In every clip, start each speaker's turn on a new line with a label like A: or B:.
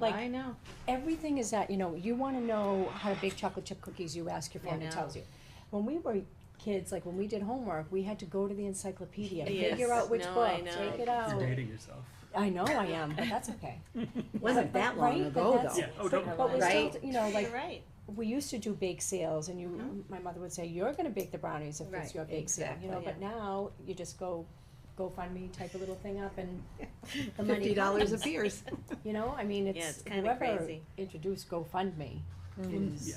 A: Like,
B: I know.
A: everything is that, you know, you wanna know how to bake chocolate chip cookies, you ask your
B: I
A: phone, it
B: know.
A: tells you. When we were kids, like when we did homework, we had to go to the encyclopedia,
B: Yes.
A: figure out which
B: No,
A: book,
B: I know.
A: take it out.
C: You're dating yourself.
A: I know I am, but that's okay.
D: Wasn't
A: But-
D: that
A: but-
D: long
A: right, but
D: ago
A: that's-
D: though.
C: Yeah, oh, don't
A: But we
D: Right?
A: still, you know, like,
B: You're right.
A: we used to do bake sales and you,
B: Mhm.
A: my mother would say, you're gonna bake the brownies if it's
B: Right,
A: your bake sale, you know,
B: exactly,
A: but now you just go, GoFundMe, type a little thing up and the money
D: Fifty dollars
A: comes,
D: appears.
A: You know, I mean,
B: Yeah,
A: it's
B: it's kinda
A: whoever
B: crazy.
A: introduced GoFundMe is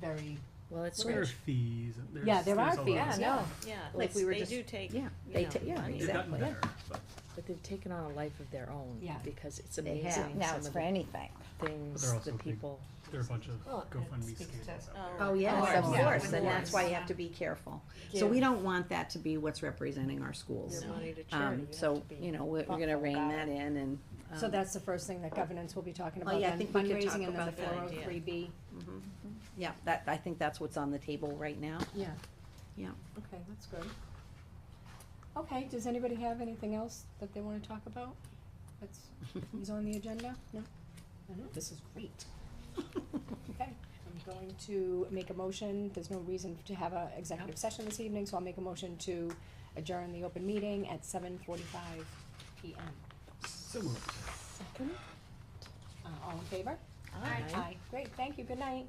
A: very,
E: Well, it's
C: There are
E: rich.
C: fees and there's.
A: yeah, there are
C: there's a lot
A: fees,
C: of
E: Yeah,
C: stuff.
E: no,
B: Yeah,
D: Well,
B: like
D: it's-
B: we were
D: they
B: just,
D: do
B: you take,
D: Yeah,
B: you
D: they
B: know,
D: ta- yeah,
B: money.
C: They've gotten
D: exactly.
C: better, but
E: but they've taken on a life of their own.
A: Yeah.
E: Because it's
D: They have.
E: amazing
F: Now
E: some
F: it's
E: of
F: for
E: the
F: anything.
E: things
C: But they're
E: the
C: also big.
E: people.
C: there are a bunch of
A: Well, it
C: GoFundMe
A: speaks to-
C: scandals out
B: Oh,
C: there.
D: Oh, yes, of
B: course,
D: course,
B: of
D: and that's
B: course.
D: why you have to be careful. So we don't want that to be what's representing our schools.
E: Your money to charity,
D: Um,
E: you have
D: so,
E: to be-
D: you know, we're, we're gonna
E: thoughtful
D: rein
E: about
D: that in and.
A: so
D: um,
A: that's the first thing that governance will be talking
D: Well,
A: about,
D: yeah, I
A: then
D: think we could talk
A: fundraising and then the
D: about
A: four
D: that
A: oh
B: idea.
A: three B,
D: mhm. Yeah, that, I think that's what's on the table right now.
A: yeah.
D: Yeah.
A: Okay, that's good. Okay, does anybody have anything else that they wanna talk about? That's, is on the agenda? No? I know, this is great. Okay, I'm going to make a motion, there's no reason to have a executive session this evening, so I'll make a motion to adjourn the open meeting at seven forty-five P M.
C: So moved.
A: Second. Uh, all in favor?
E: Aye.
A: Aye, great, thank you, good night.